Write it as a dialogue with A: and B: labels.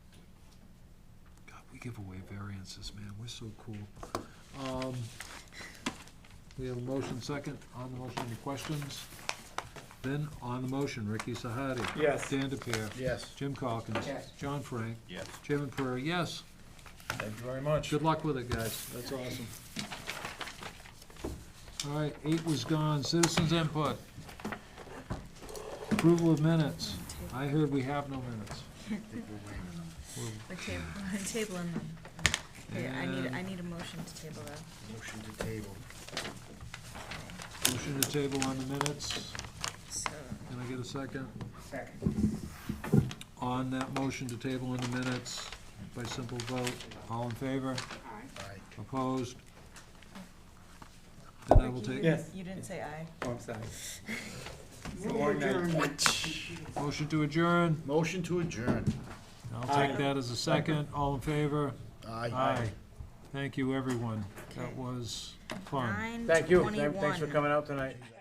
A: give away variances, man, we're so cool. Um, We have a motion second, on the motion, any questions? Then, on the motion, Ricky Sahadi.
B: Yes.
A: Dan DePere.
C: Yes.
A: Jim Calkins.
D: Yes.
A: John Frank.
C: Yes.
A: Chairman Prairie, yes.
C: Thank you very much.
A: Good luck with it, guys. That's awesome. All right, eight was gone. Citizens input. Approval of minutes. I heard we have no minutes. We're-
D: We're tab- we're tabling them. Here, I need, I need a motion to table that.
C: Motion to table.
A: Motion to table on the minutes.
D: So,
A: Can I get a second?
D: second.
A: On that motion to table on the minutes by simple vote. All in favor?
C: Aye.
A: Opposed? Then I will
D: Ricky, you
A: take,
B: Yes.
D: didn't- You didn't say aye.
B: Oh, I'm sorry. It's a long night.
A: motion to adjourn.
C: Motion to adjourn.
A: I'll
B: Aye.
A: take that as a second. All in favor?
C: Aye.
A: Thank you, everyone. That
D: Okay.
A: was fun.
D: Nine
E: Thank you, Thank-
D: twenty-one.
E: thanks for coming out tonight.